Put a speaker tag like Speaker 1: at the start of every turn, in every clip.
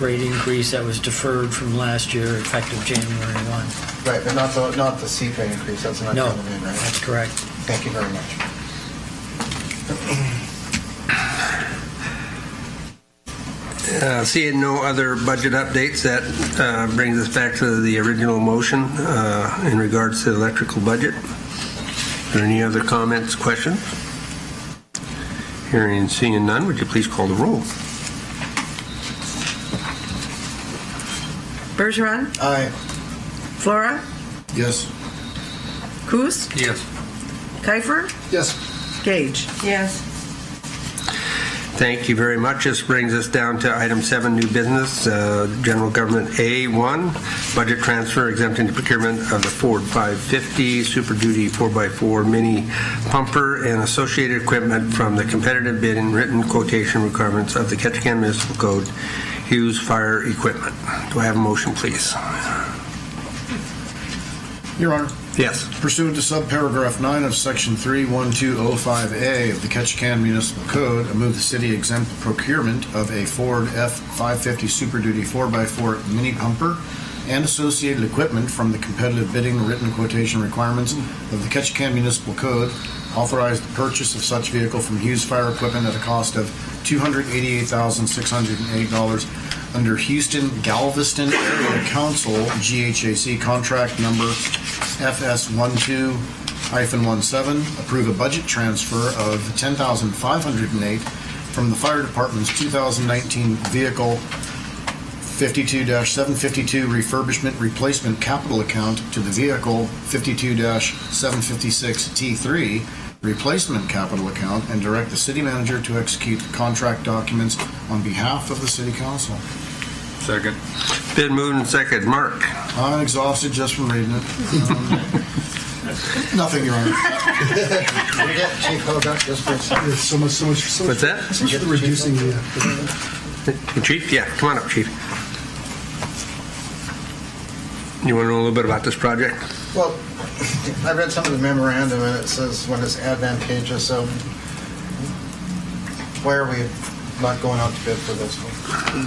Speaker 1: rate increase that was deferred from last year, effective January 1.
Speaker 2: Right, but not the, not the CPA increase, that's not
Speaker 1: No,
Speaker 2: coming in, right?
Speaker 1: that's correct.
Speaker 2: Thank you very much.
Speaker 3: Uh, Seeing no other budget updates, that uh, brings us back to the original motion uh, in regards to the electrical budget. Are there any other comments, questions? Hearing and seeing none, would you please call the roll?
Speaker 4: Bergeron,
Speaker 2: Aye.
Speaker 4: Flora,
Speaker 2: Yes.
Speaker 4: Coos,
Speaker 3: Yes.
Speaker 4: Kiefer,
Speaker 2: Yes.
Speaker 4: Gage. Yes.
Speaker 3: Thank you very much. This brings us down to item seven, new business, uh, general government A1, budget transfer exempting the procurement of the Ford 550 Super Duty 4x4 mini pumper and associated equipment from the competitive bid and written quotation requirements of the Ketchikan Municipal Code, Hughes Fire Equipment. Do I have a motion, please?
Speaker 5: Your Honor,
Speaker 3: Yes.
Speaker 5: pursuant to subparagraph 9 of Section 31205A of the Ketchikan Municipal Code, I move the city exempt the procurement of a Ford F-550 Super Duty 4x4 mini pumper and associated equipment from the competitive bidding written quotation requirements of the Ketchikan Municipal Code, authorize the purchase of such vehicle from Hughes Fire Equipment at a cost of $288,608 under Houston Galveston Area Council GHAC contract number FS 12-17, approve a budget transfer of 10508 from the Fire Department's 2019 Vehicle 52-752 Refurbishment Replacement Capital Account to the Vehicle 52-756T3 Replacement Capital Account, and direct the city manager to execute the contract documents on behalf of the city council.
Speaker 3: Second. Been moved and second. Mark?
Speaker 5: I'm exhausted just from reading it. Um, Nothing, Your Honor.
Speaker 2: Can we get Chief Hodak just for a second?
Speaker 6: There's so much, so much, so much
Speaker 3: What's that?
Speaker 6: so much for reducing the, uh,
Speaker 3: Chief? Yeah, come on up, Chief. You want to know a little bit about this project?
Speaker 2: Well, I read some of the memorandum and it says when it's advantageous, so why are we not going out to bid for this one?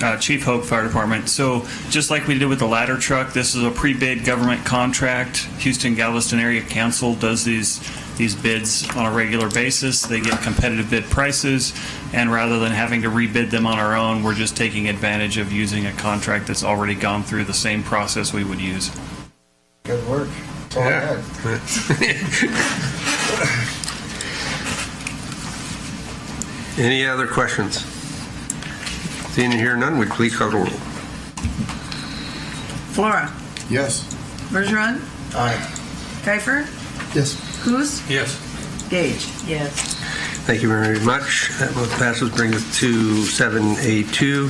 Speaker 7: Uh, Chief Hope Fire Department. So, just like we did with the ladder truck, this is a pre-bid government contract. Houston Galveston Area Council does these these bids on a regular basis. They get competitive bid prices, and rather than having to rebid them on our own, we're just taking advantage of using a contract that's already gone through the same process we would use.
Speaker 2: Good work. That's all I had.
Speaker 3: Any other questions? Seeing and hearing none, would you please call the roll?
Speaker 4: Flora,
Speaker 5: Yes.
Speaker 4: Bergeron,
Speaker 2: Aye.
Speaker 4: Kiefer,
Speaker 6: yes.
Speaker 4: Coos,
Speaker 3: Yes.
Speaker 4: Gage. Yes.
Speaker 3: Thank you very much. That motion passes, brings us to 7A2,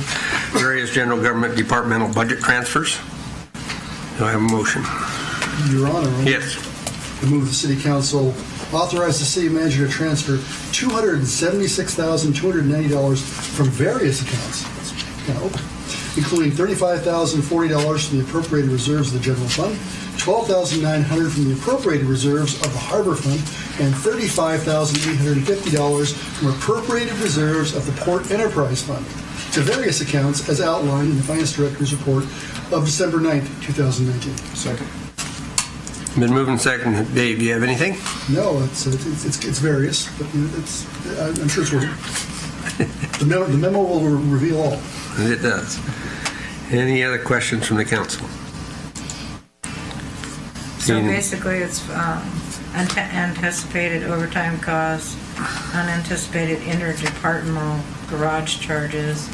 Speaker 3: various general government departmental budget transfers. Do I have a motion?
Speaker 6: Your Honor.
Speaker 3: Yes.
Speaker 6: I move the city council authorize the city manager to transfer $276,290 from various accounts, Now, including $35,040 from the appropriated reserves of the general fund, $12,900 from the appropriated reserves of the harbor fund, and $35,850 from appropriated reserves of the port enterprise fund to various accounts as outlined in the finance director's report of December 9th, 2019.
Speaker 5: Second.
Speaker 3: Been moving second. Dave, do you have anything?
Speaker 6: No, it's it's it's, it's various, but it's I'm sure it's worth it. The memo, the memo will reveal all.
Speaker 3: It does. Any other questions from the council?
Speaker 8: So
Speaker 3: Seeing-
Speaker 8: basically, it's um, ante- anticipated overtime costs, unanticipated interdepartmental garage charges,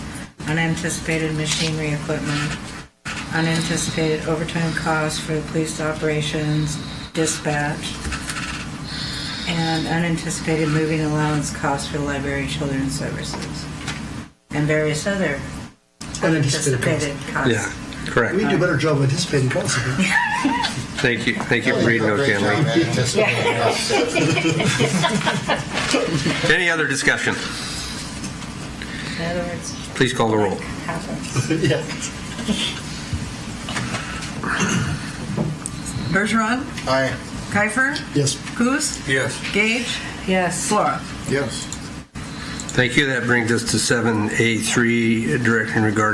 Speaker 8: unanticipated machinery equipment, unanticipated overtime costs for the police operations, dispatch, and unanticipated moving allowance costs for library and children's services, and various other
Speaker 6: Unanticipated costs.
Speaker 8: anticipated costs.
Speaker 3: Yeah, correct.
Speaker 6: We do a better job of anticipating possibly.
Speaker 3: Thank you, thank you for reading those,
Speaker 2: Great job,
Speaker 3: Stanley.
Speaker 2: man. Anticipating us.
Speaker 3: Any other discussion?
Speaker 8: In other words,
Speaker 3: Please call the roll.
Speaker 8: happens.
Speaker 6: yeah.
Speaker 4: Bergeron,
Speaker 2: Aye.
Speaker 4: Kiefer,
Speaker 6: Yes.
Speaker 4: Coos,
Speaker 3: Yes.
Speaker 4: Gage,
Speaker 8: Yes.
Speaker 4: Flora.
Speaker 5: Yes.
Speaker 3: Thank you. That brings us to 7A3, direction regarding